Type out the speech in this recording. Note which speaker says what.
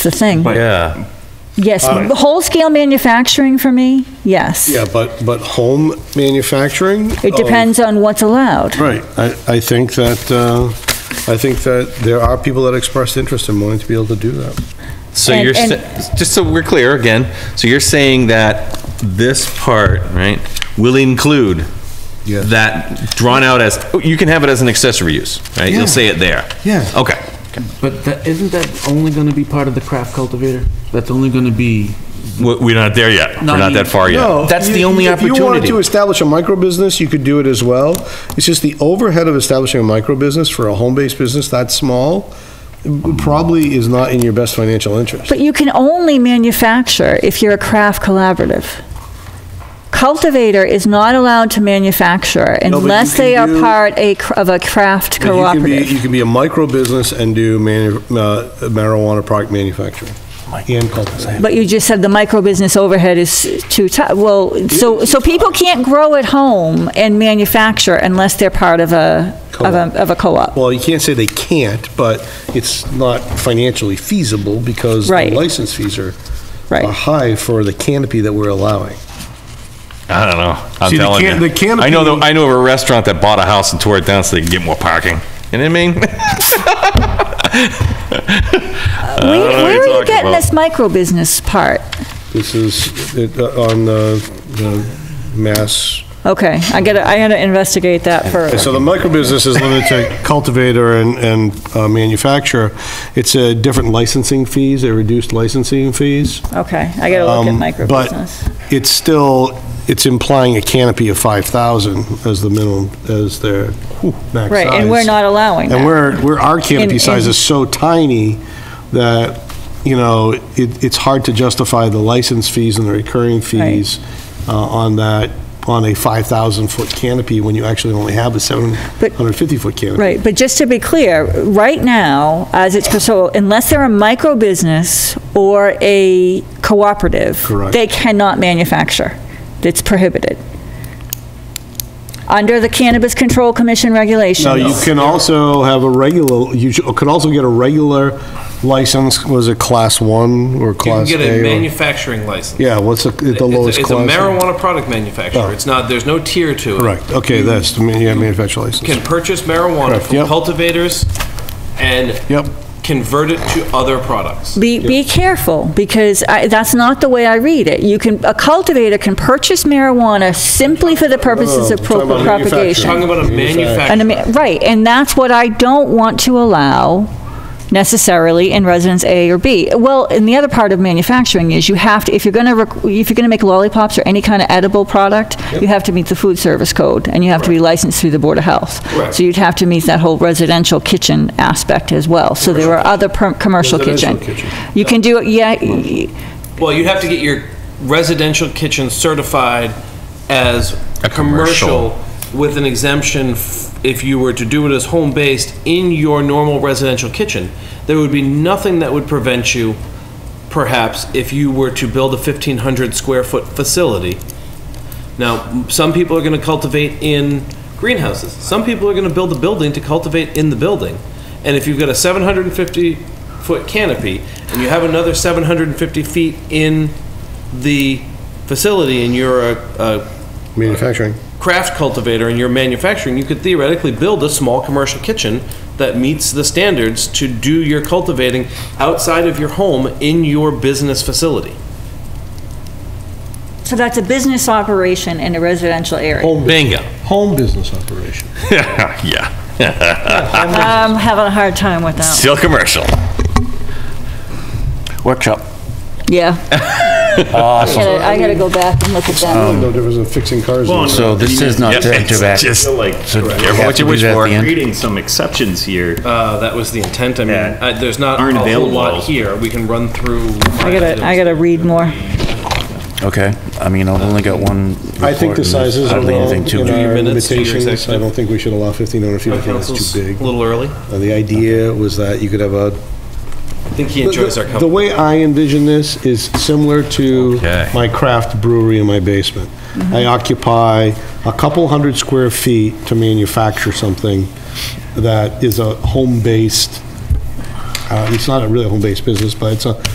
Speaker 1: That's the thing.
Speaker 2: Yeah.
Speaker 1: Yes, whole-scale manufacturing for me, yes.
Speaker 3: Yeah, but, but home manufacturing?
Speaker 1: It depends on what's allowed.
Speaker 3: Right, I, I think that, uh, I think that there are people that expressed interest in wanting to be able to do that.
Speaker 2: So
Speaker 1: And-
Speaker 2: you're,
Speaker 1: and-
Speaker 2: sa- just so we're clear again, so you're saying that this part, right, will include
Speaker 3: Yes.
Speaker 2: that drawn out as, you can have it as an accessory use, right? You'll
Speaker 4: Yeah.
Speaker 2: say it there.
Speaker 4: Yeah.
Speaker 2: Okay.
Speaker 4: But that, isn't that only gonna be part of the craft cultivator? That's only gonna be,
Speaker 2: We- We're not there yet. We're
Speaker 4: Not
Speaker 2: not
Speaker 4: yet.
Speaker 2: that far yet.
Speaker 3: No,
Speaker 4: That's
Speaker 3: you-
Speaker 4: the only
Speaker 3: If you wanted
Speaker 4: opportunity.
Speaker 3: to establish a micro business, you could do it as well. It's just the overhead of establishing a micro business for a home-based business that small probably is not in your best financial interest.
Speaker 1: But you can only manufacture if you're a craft collaborative. Cultivator is not allowed to manufacture
Speaker 3: but you
Speaker 1: unless they
Speaker 3: can
Speaker 1: are
Speaker 3: do-
Speaker 1: part a cr- of a craft
Speaker 3: But you can be-
Speaker 1: cooperative.
Speaker 3: You can be a micro business and do manu- uh, marijuana product manufacturing and cultivation.
Speaker 1: But you just said the micro business overhead is too ti, well, so, so people can't grow at home and manufacture unless they're part of a, of
Speaker 3: Co-op.
Speaker 1: a, of a co-op.
Speaker 3: Well, you can't say they can't, but it's not financially feasible because the
Speaker 1: Right.
Speaker 3: license fees are
Speaker 1: Right.
Speaker 3: are high for the canopy that we're allowing.
Speaker 2: I don't know. I'm
Speaker 3: See, the
Speaker 2: telling
Speaker 3: can- the
Speaker 2: you. I know, the-
Speaker 3: canopy-
Speaker 2: I know of a restaurant that bought a house and tore it down so they could get more parking. You know what I mean?
Speaker 1: Where
Speaker 2: don't know what
Speaker 1: where
Speaker 2: you're
Speaker 1: are you
Speaker 2: talking
Speaker 1: getting
Speaker 2: about.
Speaker 1: this micro business part?
Speaker 3: This is it, uh, on the, the mass.
Speaker 1: Okay, I gotta, I gotta investigate that further.
Speaker 3: So the microbusiness is limited to cultivator and, and uh, manufacturer. It's a different licensing fees, they reduced licensing fees.
Speaker 1: Okay, I gotta look at
Speaker 3: Um,
Speaker 1: micro business.
Speaker 3: But it's still, it's implying a canopy of 5,000 as the minimum, as their whew, max size.
Speaker 1: Right, and we're not allowing that.
Speaker 3: And we're, we're, our
Speaker 1: In-
Speaker 3: canopy size
Speaker 1: in-
Speaker 3: is so tiny that, you know, it, it's hard to justify the license fees and the recurring fees uh, on that, on a 5,000-foot canopy when you actually only have a 750-foot canopy.
Speaker 1: Right, but just to be clear, right now, as it's, so unless they're a micro business or a cooperative,
Speaker 3: Correct.
Speaker 1: they cannot manufacture. It's prohibited. Under the Cannabis Control Commission regulations.
Speaker 3: Now, you can also have a regular, you should- could also get a regular license, was it Class 1 or
Speaker 5: You can
Speaker 3: Class A?
Speaker 5: get a
Speaker 3: or-
Speaker 5: manufacturing license.
Speaker 3: Yeah, what's the- the
Speaker 5: It's a-
Speaker 3: lowest
Speaker 5: It's
Speaker 3: class?
Speaker 5: a marijuana product manufacturer.
Speaker 3: Oh.
Speaker 5: It's not, there's no tier to it.
Speaker 3: Correct, okay, that's, the man- yeah, manufacturer
Speaker 5: Can
Speaker 3: license.
Speaker 5: purchase marijuana
Speaker 3: Correct,
Speaker 5: from
Speaker 3: yep.
Speaker 5: cultivators and
Speaker 3: Yep.
Speaker 5: convert it to other products.
Speaker 1: Be, be careful, because I, that's not the way I read it. You can, a cultivator can purchase marijuana simply for the purposes of
Speaker 3: No, no, no, I'm Oh, talking about
Speaker 1: propagation.
Speaker 5: Talking about a
Speaker 3: Manufacturing.
Speaker 1: And, I mean,
Speaker 5: manufacturer.
Speaker 1: right, and that's what I don't want to allow necessarily in residence A or B. Well, and the other part of manufacturing is you have to, if you're gonna, rec- if you're gonna make lollipops or any kind of edible product, you have to meet the food service code, and you have to be licensed through the Board of Health.
Speaker 5: Correct.
Speaker 1: So you'd have to meet that whole residential kitchen aspect as well. So there are other per- commercial kitchen.
Speaker 3: Residential kitchen.
Speaker 1: You can do, it. yeah, y-
Speaker 5: Well, you'd have to get your residential kitchen certified as
Speaker 2: A commercial.
Speaker 5: commercial with an exemption f- if you were to do it as home-based in your normal residential kitchen. There would be nothing that would prevent you, perhaps, if you were to build a 1,500-square-foot facility. Now, m- some people are going to cultivate in greenhouses. Some people are going to build a building to cultivate in the building. And if you've got a 750-foot canopy and you have another 750 feet in the facility and you're a, a
Speaker 3: Manufacturing.
Speaker 5: craft cultivator and you're manufacturing, you could theoretically build a small commercial kitchen that meets the standards to do your cultivating outside of your home in your business facility.
Speaker 1: so that's a business operation in a residential area.
Speaker 3: Home business.
Speaker 2: Bingo.
Speaker 3: Home business operation.
Speaker 2: Yeah.
Speaker 1: I'm having a hard time with that.
Speaker 2: Still commercial.
Speaker 4: workshop.
Speaker 1: Yeah. Awesome. I gotta go back and look at that.
Speaker 3: No difference in fixing cars. and-
Speaker 4: So this is not
Speaker 2: Yep,
Speaker 4: turned
Speaker 2: it's
Speaker 4: back.
Speaker 2: just-
Speaker 4: So
Speaker 6: feel like
Speaker 4: do we
Speaker 2: Careful
Speaker 4: have
Speaker 2: what
Speaker 4: to
Speaker 2: you
Speaker 4: do
Speaker 2: wish
Speaker 4: that at
Speaker 2: for.
Speaker 4: the end?
Speaker 6: creating some exceptions here.
Speaker 5: Uh, that was the intent. I mean,
Speaker 6: Yeah.
Speaker 5: I, there's not
Speaker 6: Aren't
Speaker 5: a whole
Speaker 6: available.
Speaker 5: lot here. We can run through.
Speaker 1: I gotta, I gotta read more.
Speaker 4: Okay, I mean, I've only got one report.
Speaker 3: I think the
Speaker 4: and
Speaker 3: sizes are
Speaker 4: hardly
Speaker 3: wrong
Speaker 4: anything to
Speaker 3: in
Speaker 4: it.
Speaker 3: our
Speaker 5: minutes to your
Speaker 3: limitations. I
Speaker 5: executive.
Speaker 3: don't think we should allow 1,500 feet. I think it's
Speaker 5: Council's
Speaker 3: too big.
Speaker 5: a little early. I
Speaker 3: Uh, The idea was that you could have a
Speaker 5: think he enjoys our
Speaker 3: The-
Speaker 5: company.
Speaker 3: The way I envision this is similar to
Speaker 2: Okay.
Speaker 3: my craft brewery in my basement. I occupy a couple hundred square feet to manufacture something that is a home-based, uh, it's not a really a home-based business, but it's a